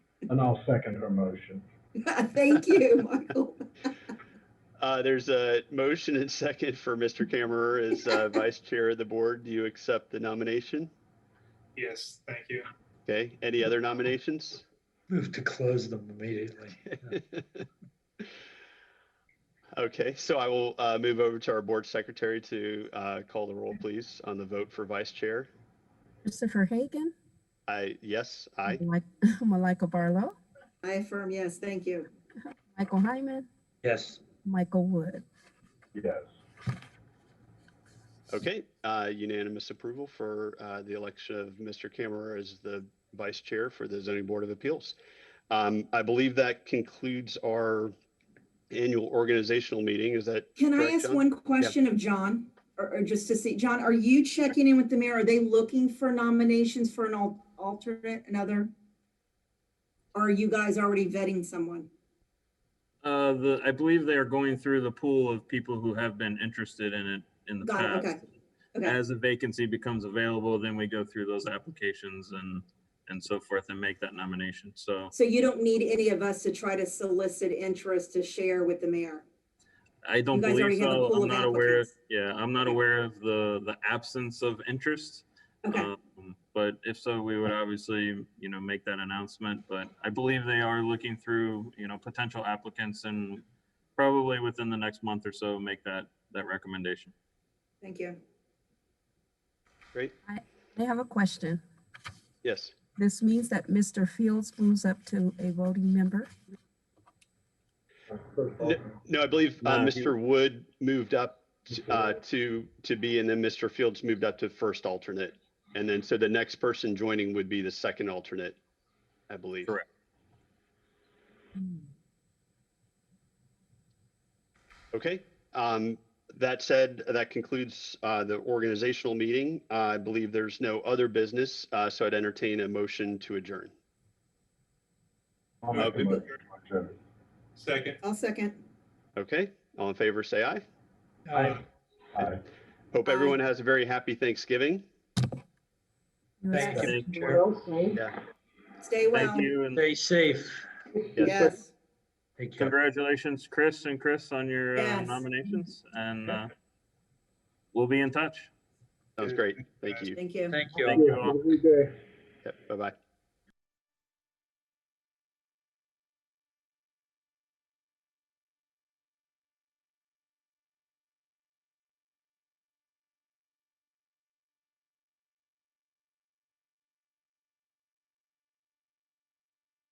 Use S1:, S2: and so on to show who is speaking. S1: And I'll second her motion.
S2: Thank you, Michael.
S3: Uh, there's a motion and second for Mr. Camerer as uh, Vice Chair of the Board. Do you accept the nomination?
S4: Yes, thank you.
S3: Okay, any other nominations?
S5: Move to close them immediately.
S3: Okay, so I will uh, move over to our Board Secretary to uh, call the roll, please, on the vote for Vice Chair.
S6: Christopher Hagan.
S3: I, yes, I,
S6: Mi- Malika Barlow,
S2: I affirm, yes, thank you.
S6: Michael Hyman,
S5: Yes,
S6: Michael Wood.
S1: Yes.
S3: okay, uh, unanimous approval for uh, the election of Mr. Camerer as the Vice Chair for the Zoning Board of Appeals. Um, I believe that concludes our annual organizational meeting. Is that
S2: Can I
S3: Correct,
S2: ask
S3: John?
S2: one question of John, or, or just to see, John, are you checking in with the mayor? Are they looking for nominations for an al- alternate, another? Or are you guys already vetting someone?
S7: Uh, the, I believe they are going through the pool of people who have been interested in it in the
S2: Got it,
S7: past.
S2: okay.
S7: As a vacancy becomes available, then we go through those applications and, and so forth and make that nomination. So
S2: So you don't need any of us to try to solicit interest to share with the mayor?
S7: I don't
S2: guys already
S7: believe
S2: have a
S7: so.
S2: pool
S7: I'm
S2: of
S7: not aware,
S2: applicants.
S7: yeah, I'm not aware of the, the absence of interest.
S2: Okay,
S7: Um, But if so, we would obviously, you know, make that announcement, but I believe they are looking through, you know, potential applicants and probably within the next month or so, make that, that recommendation.
S2: thank you.
S3: great?
S6: I have a question.
S3: Yes.
S6: This means that Mr. Fields moves up to a voting member.
S3: No, I believe uh,
S7: No, he-
S3: Mr. Wood moved up uh, to, to be, and then Mr. Fields moved up to first alternate. And then, so the next person joining would be the second alternate, I believe.
S7: Correct.
S3: Okay. um, That said, that concludes uh, the organizational meeting. Uh, I believe there's no other business, uh, so I'd entertain a motion to adjourn.
S1: I'll make a
S3: Okay.
S1: motion. to adjourn.
S4: Second.
S2: I'll second.
S3: Okay, all in favor, say aye.
S5: I,
S1: Aye.
S3: Hope
S2: Aye.
S3: everyone has a very happy Thanksgiving.
S5: thank
S6: Yes.
S5: you.
S7: Thank you.
S5: Chair.
S3: Yeah.
S2: Stay well.
S7: Thank you and
S5: Stay safe.
S2: Yes.
S5: Take care.
S7: congratulations, Chris and Chris, on your uh,
S2: Yes.
S7: nominations and uh, we'll be in touch.
S3: That was great. Thank you.
S2: Thank you.
S5: Thank you.
S7: Thank you all.
S3: Yep, Bye-bye.